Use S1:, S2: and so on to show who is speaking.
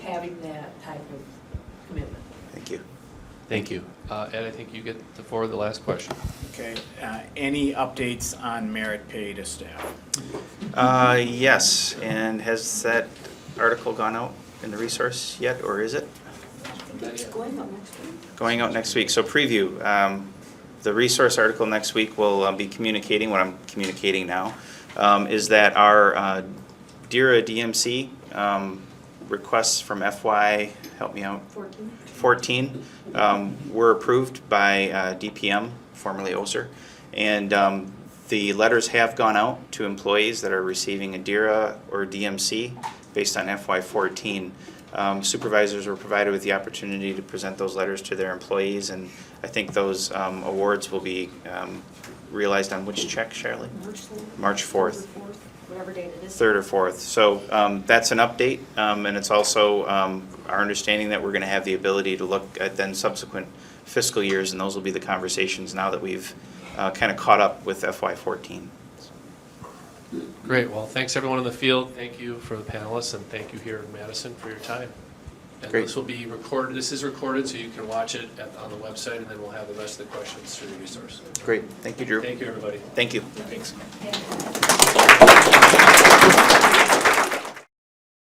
S1: having that type of commitment.
S2: Thank you.
S3: Thank you. Uh, Ed, I think you get the floor, the last question.
S4: Okay, uh, any updates on merit pay to staff?
S2: Uh, yes, and has that article gone out in the resource yet, or is it?
S1: It's going up next week.
S2: Going out next week, so preview. Um, The resource article next week will uh, be communicating, what I'm communicating now, um, is that our uh, DERA DMC um, requests from FY, help me out,
S1: 14?
S2: 14 um, were approved by uh, DPM, formerly OSER. And um, the letters have gone out to employees that are receiving a DIRA or DMC based on FY14. Um, Supervisors were provided with the opportunity to present those letters to their employees, and I think those um, awards will be um, realized on which check, Shirley?
S1: March 4th?
S2: March 4th.
S1: Whatever date it is.
S2: Third or fourth. So um, that's an update, um, and it's also um, our understanding that we're going to have the ability to look at then subsequent fiscal years, and those will be the conversations now that we've kind of caught up with FY14.
S3: Great, well, thanks everyone in the field, thank you for the panelists, and thank you here in Madison for your time. And
S2: Great.
S3: this will be recorded, this is recorded, so you can watch it at- on the website, and then we'll have the rest of the questions through the resource.
S2: Great, thank you, Drew.
S3: Thank you, everybody.
S2: Thank you.
S3: Thanks.